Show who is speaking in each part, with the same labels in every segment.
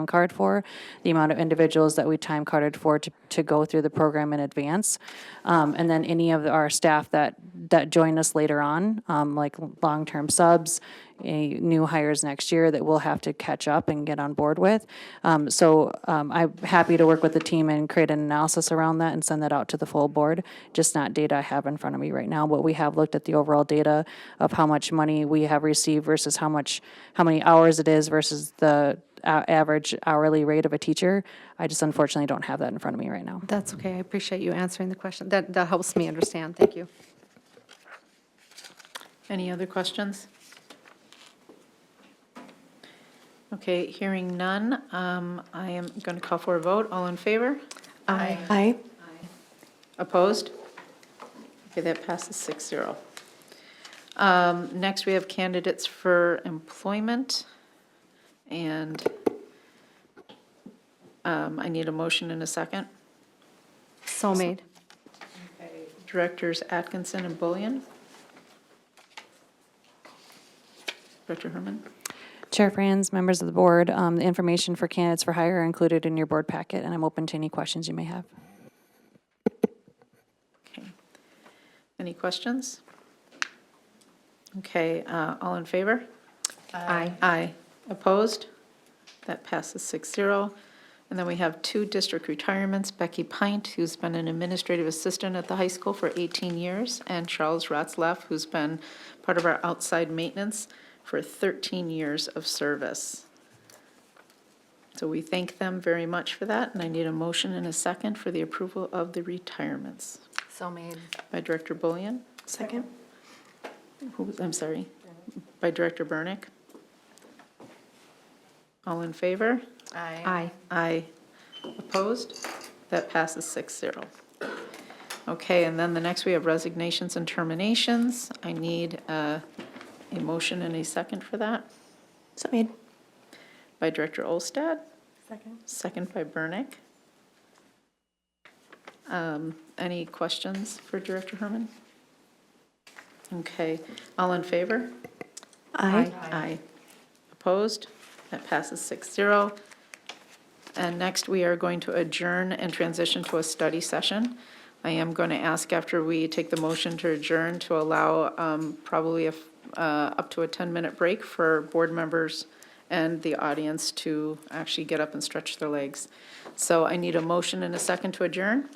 Speaker 1: time card for, the amount of individuals that we time carded for to, to go through the program in advance. Um, and then any of our staff that, that join us later on, um, like long-term subs, eh, new hires next year that we'll have to catch up and get on board with. Um, so, um, I'm happy to work with the team and create an analysis around that and send that out to the full board. Just not data I have in front of me right now, but we have looked at the overall data of how much money we have received versus how much, how many hours it is versus the uh, average hourly rate of a teacher. I just unfortunately don't have that in front of me right now.
Speaker 2: That's okay, I appreciate you answering the question. That, that helps me understand, thank you.
Speaker 3: Any other questions? Okay, hearing none, um, I am going to call for a vote. All in favor? Aye.
Speaker 4: Aye.
Speaker 3: Opposed? Okay, that passes 6-0. Um, Next, we have candidates for employment, and um, I need a motion in a second.
Speaker 2: So made.
Speaker 3: Directors Atkinson and Bullion. Director Herman?
Speaker 1: Chair Franz, members of the board, um, the information for candidates for hire are included in your board packet, and I'm open to any questions you may have.
Speaker 3: Okay. Any questions? Okay, uh, all in favor?
Speaker 2: Aye.
Speaker 3: Aye. Opposed? That passes 6-0. And then we have two district retirements, Becky Pint, who's been an administrative assistant at the high school for 18 years, and Charles Ratzlaff, who's been part of our outside maintenance for 13 years of service. So we thank them very much for that, and I need a motion and a second for the approval of the retirements.
Speaker 2: So made.
Speaker 3: By Director Bullion?
Speaker 4: Second?
Speaker 3: Who was, I'm sorry, by Director Burnick. All in favor?
Speaker 2: Aye.
Speaker 3: Aye. Opposed? That passes 6-0. Okay, and then the next we have resignations and terminations. I need uh, a motion and a second for that
Speaker 4: So made.
Speaker 3: by Director Olstad,
Speaker 4: Second?
Speaker 3: second by Burnick. Um, Any questions for Director Herman? Okay, all in favor?
Speaker 4: Aye.
Speaker 3: Aye. Opposed? That passes 6-0. And next, we are going to adjourn and transition to a study session. I am going to ask after we take the motion to adjourn to allow um, probably a f- uh, up to a 10-minute break for board members and the audience to actually get up and stretch their legs. So I need a motion and a second to adjourn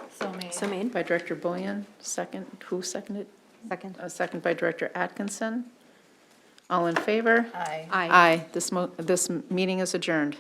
Speaker 4: So made?
Speaker 3: by Director Bullion, second, who seconded?
Speaker 2: Second.
Speaker 3: A second by Director Atkinson. All in favor?
Speaker 2: Aye.
Speaker 3: Aye. This mo, this meeting is adjourned.